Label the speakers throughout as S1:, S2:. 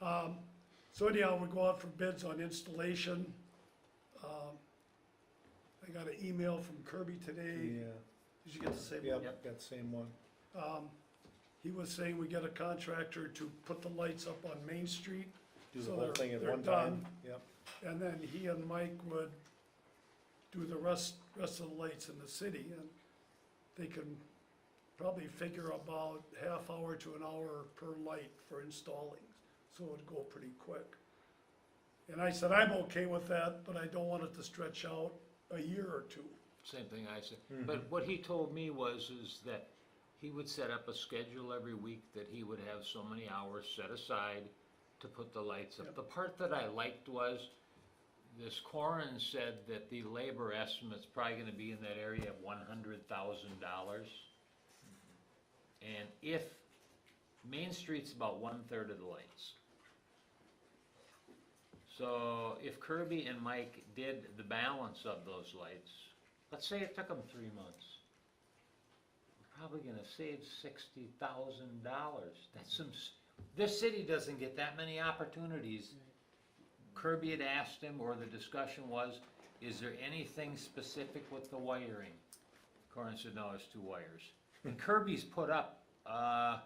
S1: Um, So anyhow, we go out for bids on installation. Um, I got an email from Kirby today,
S2: Yeah,
S1: did you get the same one?
S2: yeah, got the same one.
S1: Um, He was saying we get a contractor to put the lights up on Main Street,
S2: Do
S1: So
S2: the whole
S1: they're-
S2: thing at
S1: they're
S2: one time. Yep,
S1: and then he and Mike would do the rest, rest of the lights in the city, and they can probably figure about half hour to an hour per light for installing, so it'd go pretty quick. And I said, I'm okay with that, but I don't want it to stretch out a year or two.
S3: Same thing I said, but what he told me was, is that he would set up a schedule every week that he would have so many hours set aside to put the lights up. The part that I liked was, this Corin said that the labor estimate's probably gonna be in that area of one hundred thousand dollars. And if, Main Street's about one-third of the lights. So if Kirby and Mike did the balance of those lights, let's say it took them three months. We're probably gonna save sixty thousand dollars. That's some, s- this city doesn't get that many opportunities. Kirby had asked him, or the discussion was, is there anything specific with the wiring? Corin said, no, it's two wires. And Kirby's put up, uh,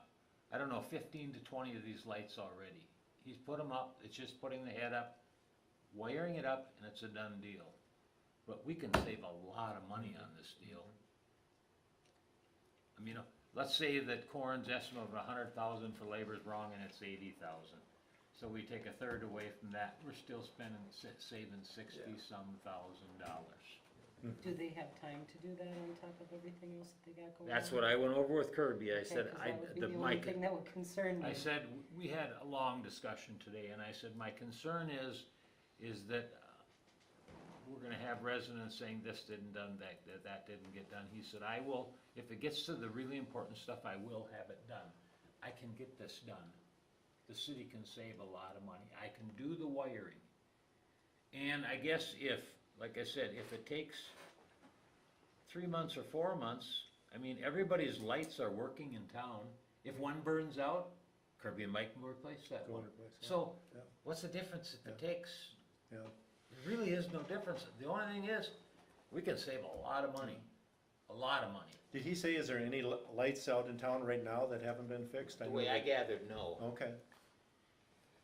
S3: I don't know, fifteen to twenty of these lights already. He's put them up, it's just putting the head up, wiring it up, and it's a done deal. But we can save a lot of money on this deal. I mean, uh, let's say that Corin's estimate of a hundred thousand for labor is wrong and it's eighty thousand. So we take a third away from that, we're still spending, sa- saving sixty-some thousand dollars.
S4: Do they have time to do that on top of everything else that they got going on?
S3: That's what I went over with Kirby, I
S4: Okay,
S3: said,
S4: 'cause
S3: I,
S4: that would be
S3: the,
S4: only
S3: my,
S4: Thing that would concern me.
S3: I said, we had a long discussion today, and I said, my concern is, is that uh, we're gonna have residents saying this didn't done, that, that, that didn't get done. He said, I will, if it gets to the really important stuff, I will have it done. I can get this done. The city can save a lot of money. I can do the wiring. And I guess if, like I said, if it takes three months or four months, I mean, everybody's lights are working in town. If one burns out, Kirby and Mike will replace that
S2: go
S3: one.
S2: and replace that.
S3: So,
S2: Yeah.
S3: what's the difference if it takes
S2: Yeah,
S3: there really is no difference. The only thing is, we can save a lot of money, a lot of money.
S2: did he say, is there any li- lights out in town right now that haven't been fixed?
S3: The
S2: know
S3: way I
S2: that-
S3: gathered, no.
S2: Okay.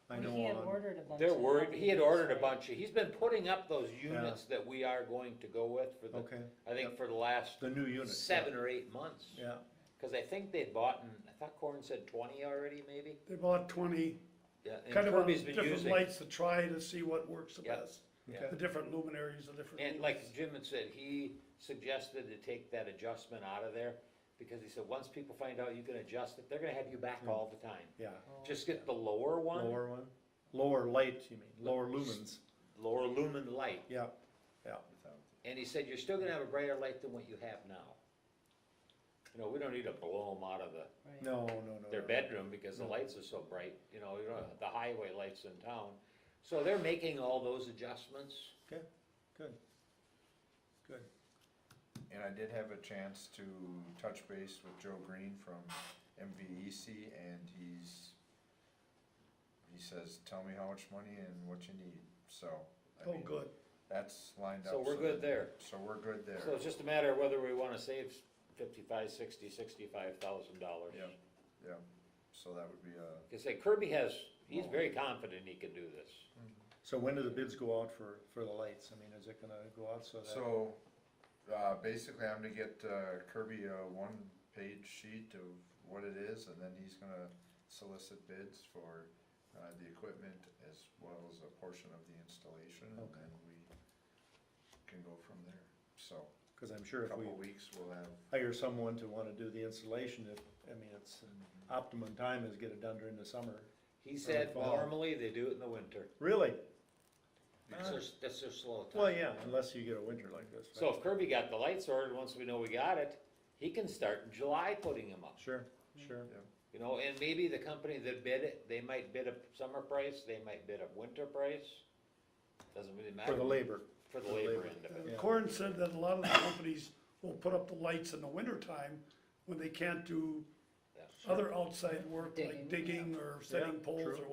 S2: I
S4: But
S2: know
S4: He had
S2: on,
S4: ordered a bunch.
S3: They're
S4: of
S3: worried, he had
S4: copies,
S3: ordered a
S4: right?
S3: bunch of, he's been putting up those units that we are going to go with for the,
S2: okay,
S3: I think for the last
S2: the new unit. yeah.
S3: seven or eight months.
S2: Yeah,
S3: Cause I think they'd bought, and I thought Corin said twenty already, maybe?
S1: They bought twenty,
S3: Yeah, and
S1: kind of on
S3: Kirby's been
S1: different
S3: using,
S1: lights to try to see what works the
S3: Yeah.
S1: best.
S3: Yeah.
S1: The
S2: okay,
S1: different luminaries, the different.
S3: and
S1: lumens.
S3: like Jim had said, he suggested to take that adjustment out of there. Because he said, once people find out you can adjust it, they're gonna have you back all the time.
S2: yeah,
S4: Oh,
S3: Just get the lower one,
S2: lower one, lower light, you mean, lower lumens,
S3: lower lumen light,
S2: yeah, yeah.
S3: and he said, you're still gonna have a brighter light than what you have now. You know, we don't need to blow them out of the,
S4: Right.
S2: No, no, no.
S3: their
S2: no.
S3: bedroom because the lights are so bright, you know, you know, the highway lights in town. So they're making all those adjustments.
S2: Okay, good, good.
S5: And I did have a chance to touch base with Joe Green from MVEC and he's, he says, tell me how much money and what you need, so. I
S1: Oh,
S5: mean,
S1: good.
S5: That's lined up.
S3: So we're good
S5: that-
S3: there.
S5: So we're good there.
S3: So it's just a matter of whether we wanna save fifty-five, sixty, sixty-five thousand dollars.
S5: Yep, yep, so that would be a,
S3: Cause say Kirby has, he's very confident he can do this.
S2: So when do the bids go out for, for the lights? I mean, is it gonna go out so that?
S5: so, uh, basically I'm gonna get uh, Kirby a one-page sheet of what it is and then he's gonna solicit bids for, uh, the equipment as well as a portion of the installation. And
S2: Okay.
S5: then we can go from there, so,
S2: Cause I'm sure
S5: a
S2: if we
S5: couple weeks we'll have,
S2: hire someone to wanna do the installation, if, I mean, it's, optimum time is get it done during the summer.
S3: He said
S2: fall.
S3: normally they do it in the winter.
S2: Really?
S3: That's their, that's their slow time.
S2: Well, yeah, unless you get a winter like this.
S3: So if Kirby got the lights ordered, once we know we got it, he can start in July putting them up.
S2: Sure, sure.
S3: You know, and maybe the company that bid it, they might bid a summer price, they might bid a winter price. Doesn't really matter.
S2: For the labor,
S3: For the
S2: for the
S3: labor
S2: labor.
S3: end of
S1: Uh,
S3: it.
S2: Yeah.
S1: Corin said that a lot of the companies will put up the lights in the wintertime when they can't do
S3: Yeah.
S1: other outside work like
S4: Digging, yeah.
S1: digging or setting
S2: Yeah,
S1: poles
S2: true.
S1: or